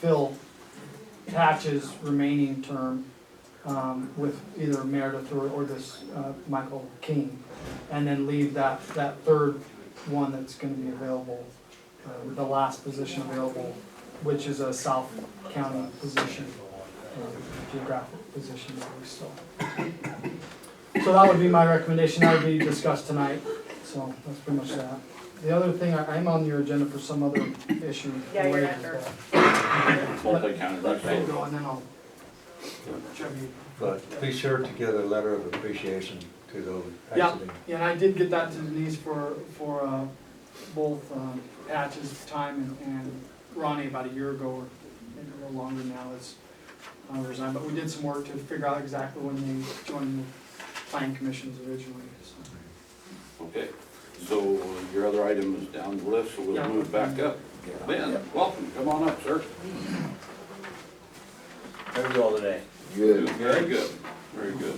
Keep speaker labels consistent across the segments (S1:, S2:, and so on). S1: fill Patch's remaining term um, with either Meredith or, or this uh, Michael King. And then leave that, that third one that's gonna be available, uh, the last position available, which is a South County position, um, geographic position that we still. So that would be my recommendation, that would be discussed tonight, so that's pretty much that. The other thing, I- I'm on your agenda for some other issue. uh,
S2: Yeah, you're
S1: related to
S2: after.
S1: that.
S3: multi-county
S1: Let Fran
S3: records.
S1: go, and then I'll tribute.
S4: But be sure to get a letter of appreciation to those
S1: Yeah.
S4: exiting.
S1: Yeah, and I did get that to Denise for, for uh, both um, Patch's time and and Ronnie about a year ago, or maybe a little longer now, is uh, resigned. But we did some work to figure out exactly when they joined the planning commissions originally, so.
S3: Okay, so your other item is down the list, so
S1: Yeah.
S3: we'll move back up. Ben, welcome, come on up, sir.
S5: How's it all today?
S3: Good. Very good, very good.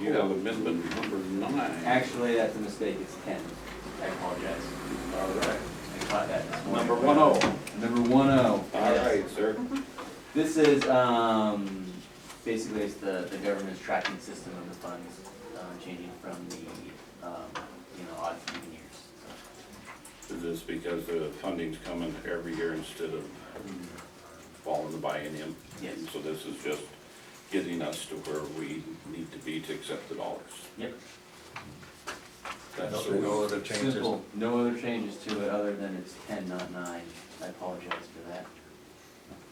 S3: You have amendment number nine.
S5: Actually, that's a mistake, it's ten. I apologize.
S3: All right,
S5: I caught that this morning.
S3: number one oh.
S5: Number one oh.
S3: All right, sir.
S5: This is, um, basically it's the, the government's tracking system of the funds, um, changing from the, um, you know, odd even years. so.
S3: Is this because the funding's coming every year instead of
S5: Mm-hmm.
S3: following the biennium?
S5: Yes.
S3: So this is just getting us to where we need to be to accept the dollars.
S5: Yep.
S3: That's the
S4: No
S3: way.
S4: other changes.
S5: Simple, no other changes to it other than it's ten, not nine. I apologize for that.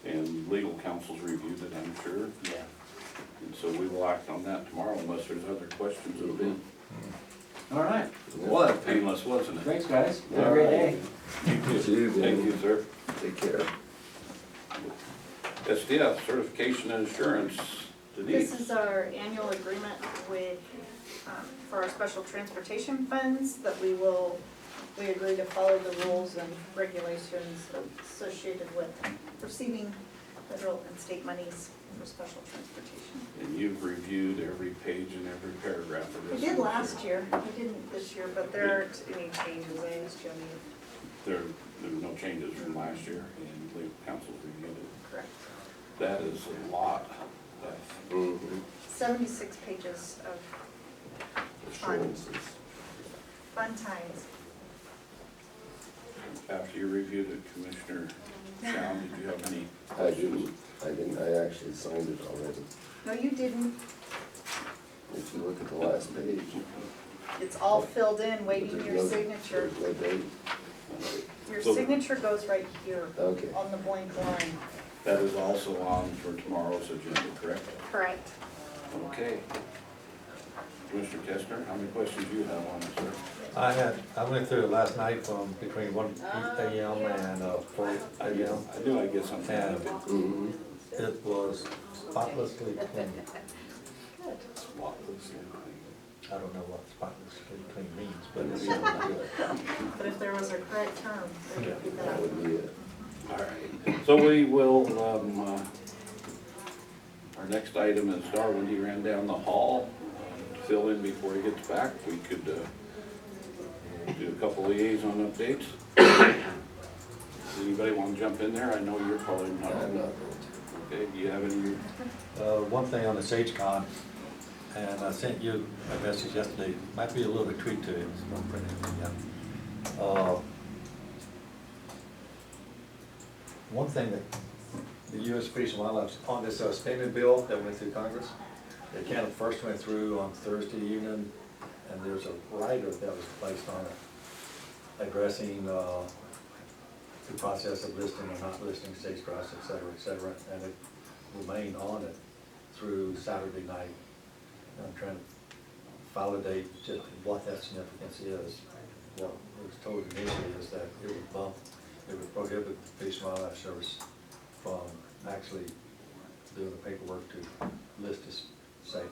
S3: And legal counsel's reviewed it, I'm sure.
S5: Yeah.
S3: And so we will act on that tomorrow unless there's other questions that have been.
S5: All right,
S3: Was painless, wasn't it?
S5: thanks, guys. Have a great day.
S3: Thank you, sir.
S6: Take care.
S3: SDF, certification and assurance, Denise.
S2: This is uh, our annual agreement with, um, for our special transportation funds that we will, we agree to follow the rules and regulations associated with receiving federal and state monies for special transportation.
S3: And you've reviewed every page and every paragraph of
S2: We
S3: this.
S2: did last year, we didn't this year, but there aren't any changes, I just, I
S3: There, there were no changes from last year and legal counsel reviewed it.
S2: correct.
S3: That is a lot of
S2: Seventy-six pages of
S3: assurances.
S2: fun times.
S3: After you reviewed it, Commissioner Brown, did you have any
S6: I
S3: questions?
S6: didn't, I didn't, I actually signed it already.
S2: No, you didn't,
S6: If you look at the last page.
S2: it's all filled in, waiting
S6: there's
S2: your
S6: no-
S2: signature.
S6: There's no date,
S2: Your signature goes right here
S6: okay.
S2: on the blank line.
S3: That is also on for tomorrow's agenda, correct?
S2: Correct.
S3: Okay. Commissioner Kestner, how many questions do you have on this, sir?
S4: I had, I went through it last night from between one AM and uh, four AM.
S3: I do, I guess I'm kind of a
S6: Mhm.
S4: It was spotlessly clean.
S3: spotless.
S4: I don't know what spotlessly clean means, but it sounds good.
S2: But if there was a correct term, it would be
S6: That
S2: that.
S6: would be it.
S3: All right, so we will, um, uh, our next item is Darwin, he ran down the hall. to Fill in before he gets back, we could, uh, do a couple liaison updates. Does Anybody want to jump in there? I know you're probably not.
S6: I'm not going
S3: Okay, do you have any?
S4: Uh, one thing on the Sage Con, and I sent you a message yesterday, might be a little bit tweaked to it, it's not printed yet. Uh, One thing that the U.S. Fish and Wildlife, on this uh, spending bill that went through Congress, it kind of first went through on Thursday evening, and there's a rider that was placed on it addressing, uh, the process of listing or not listing stage crops, et cetera, et cetera, and it remained on it through Saturday night. And I'm trying to validate just what that significance is. What was told initially is that it would bump, it would prohibit the Fish and Wildlife Service from actually doing the paperwork to list this sage,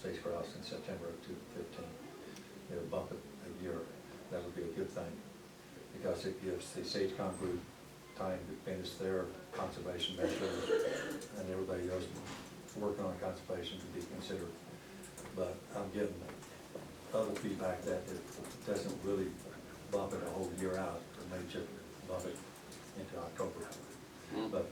S4: sage grouse in September of two fifteen. It would bump it a year, that would be a good thing because it gives the Sage Con group time to finish their conservation measures and everybody else working on conservation to be considered. But I'm getting other feedback that it doesn't really bump it a whole year out, it may just bump it into October. But